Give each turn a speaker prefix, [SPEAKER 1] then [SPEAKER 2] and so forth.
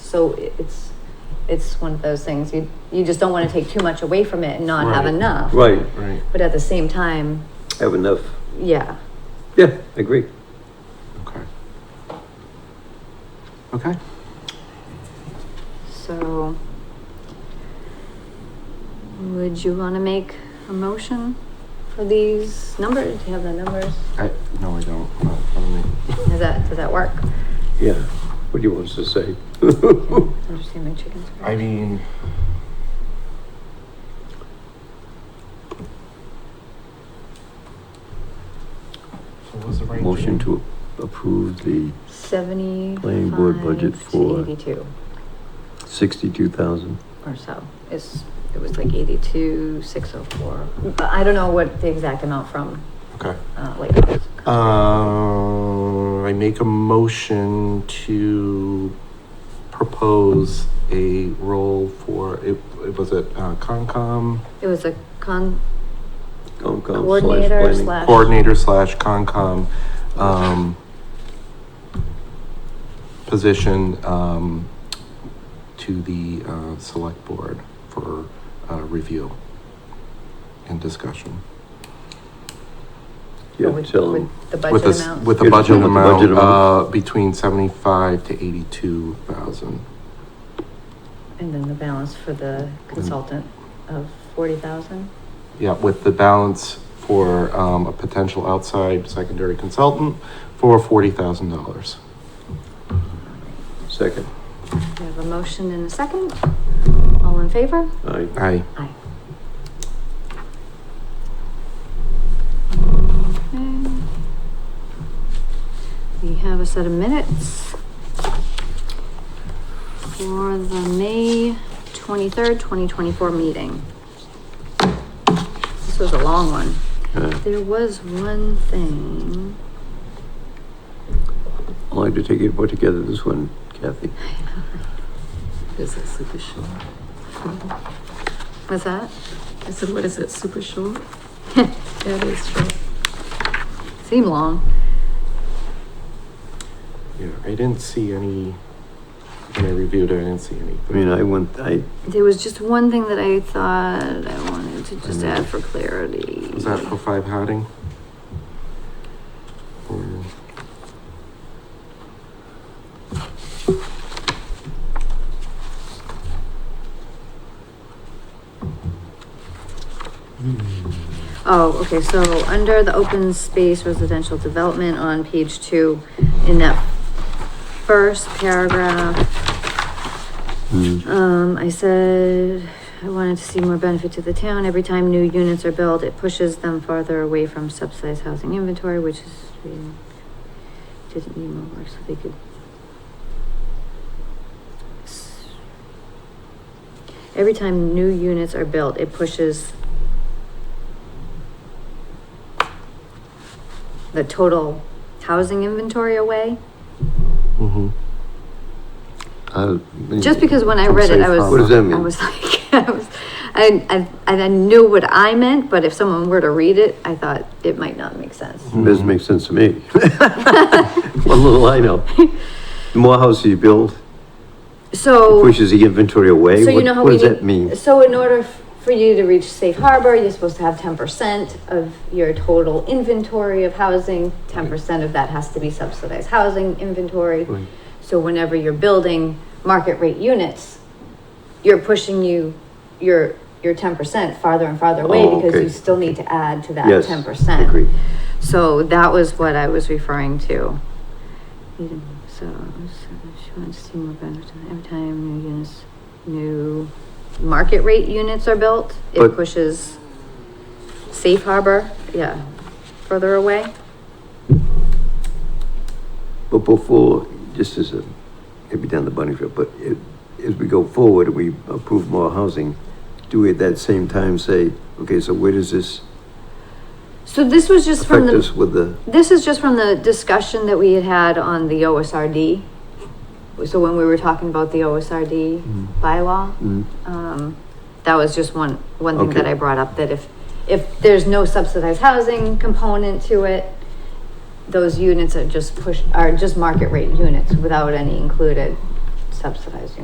[SPEAKER 1] so it- it's, it's one of those things, you, you just don't wanna take too much away from it and not have
[SPEAKER 2] Right.
[SPEAKER 1] enough.
[SPEAKER 3] Right,
[SPEAKER 2] Right.
[SPEAKER 1] But at the same time,
[SPEAKER 3] have enough.
[SPEAKER 1] yeah,
[SPEAKER 3] Yeah, I agree.
[SPEAKER 2] Okay. Okay.
[SPEAKER 1] so. Would you wanna make a motion for these numbers? Do you have the numbers?
[SPEAKER 2] I, no, I don't. Not in front of me.
[SPEAKER 1] Does that, does that work?
[SPEAKER 3] Yeah, what do you want us to say?
[SPEAKER 1] I'm just gonna make chickens.
[SPEAKER 2] I mean. What was the right?
[SPEAKER 3] Motion to approve the
[SPEAKER 1] Seventy-five
[SPEAKER 3] Planning board budget
[SPEAKER 1] to
[SPEAKER 3] for-
[SPEAKER 1] eighty-two
[SPEAKER 3] sixty-two thousand.
[SPEAKER 1] or so. It's, it was like eighty-two, six oh four. But I don't know what the exact amount from,
[SPEAKER 2] Okay.
[SPEAKER 1] uh, Lake.
[SPEAKER 2] Uh, I make a motion to propose a role for, it, it was it, uh, Concom?
[SPEAKER 1] It was a con,
[SPEAKER 3] Concom slash
[SPEAKER 1] Coordinator
[SPEAKER 3] planning.
[SPEAKER 1] slash-
[SPEAKER 2] coordinator slash Concom, um, position, um, to the, uh, select board for, uh, review and discussion.
[SPEAKER 3] Yeah,
[SPEAKER 1] with,
[SPEAKER 3] tell them,
[SPEAKER 1] with the
[SPEAKER 2] With
[SPEAKER 1] budget
[SPEAKER 2] this,
[SPEAKER 1] amount.
[SPEAKER 2] with the
[SPEAKER 3] You're
[SPEAKER 2] budget
[SPEAKER 3] talking about the
[SPEAKER 2] amount,
[SPEAKER 3] budget
[SPEAKER 2] uh,
[SPEAKER 3] amount?
[SPEAKER 2] between seventy-five to eighty-two thousand.
[SPEAKER 1] And then the balance for the consultant of forty thousand.
[SPEAKER 2] Yeah, with the balance for, um, a potential outside secondary consultant for forty thousand dollars.
[SPEAKER 3] second.
[SPEAKER 1] We have a motion and a second. All in favor?
[SPEAKER 3] Aye.
[SPEAKER 2] Aye.
[SPEAKER 1] Aye. We have a set of minutes for the May twenty-third, twenty twenty-four meeting. This was a long one.
[SPEAKER 3] Uh,
[SPEAKER 1] There was one thing.
[SPEAKER 3] I'd like to take it, put together this one, Kathy.
[SPEAKER 4] Is it super short?
[SPEAKER 1] Was that?
[SPEAKER 4] I said, what is it, super short? That is short.
[SPEAKER 1] Seemed long.
[SPEAKER 2] Yeah, I didn't see any, when I reviewed it, I didn't see anything.
[SPEAKER 3] I mean, I went, I,
[SPEAKER 1] There was just one thing that I thought I wanted to just add for clarity.
[SPEAKER 2] Was that for five Harding? Or
[SPEAKER 1] Oh, okay, so under the open space residential development on page two, in that first paragraph,
[SPEAKER 3] mm,
[SPEAKER 1] um, I said I wanted to see more benefit to the town. Every time new units are built, it pushes them farther away from subsidized housing inventory, which is, we didn't need more work, so they could. Every time new units are built, it pushes the total housing inventory away.
[SPEAKER 2] mm-hmm.
[SPEAKER 3] I.
[SPEAKER 1] Just because when I read it, I was.
[SPEAKER 3] What does that mean?
[SPEAKER 1] I was like, I was, I, I, I knew what I meant, but if someone were to read it, I thought it might not make sense.
[SPEAKER 3] Doesn't make sense to me. What little I know. The more houses you build,
[SPEAKER 1] So,
[SPEAKER 3] pushes the inventory away.
[SPEAKER 1] so you
[SPEAKER 3] What-
[SPEAKER 1] know how
[SPEAKER 3] What
[SPEAKER 1] we
[SPEAKER 3] does that
[SPEAKER 1] need,
[SPEAKER 3] mean?
[SPEAKER 1] so in order f- for you to reach safe harbor, you're supposed to have ten percent of your total inventory of housing. Ten percent of that has to be subsidized housing inventory.
[SPEAKER 3] Right.
[SPEAKER 1] So whenever you're building market rate units, you're pushing you, your, your ten percent farther and farther away
[SPEAKER 3] Oh,
[SPEAKER 1] because
[SPEAKER 3] okay.
[SPEAKER 1] you still need to add to that
[SPEAKER 3] Yes,
[SPEAKER 1] ten percent.
[SPEAKER 3] agree.
[SPEAKER 1] So that was what I was referring to. You- So, so she wants to see more benefit every time new units, new market rate units are built, it
[SPEAKER 3] But-
[SPEAKER 1] pushes safe harbor, yeah, further away.
[SPEAKER 3] But before, just as a, maybe down the bunny trail, but it, as we go forward, we approve more housing, do we at that same time say, okay, so where does this
[SPEAKER 1] So this was just from
[SPEAKER 3] affect
[SPEAKER 1] the.
[SPEAKER 3] us with the,
[SPEAKER 1] This is just from the discussion that we had had on the OSRD. So when we were talking about the OSRD bylaw,
[SPEAKER 3] Mm.
[SPEAKER 1] um, that was just one, one thing that
[SPEAKER 3] Okay.
[SPEAKER 1] I brought up, that if, if there's no subsidized housing component to it, those units are just push, are just market rate units without any included subsidized units.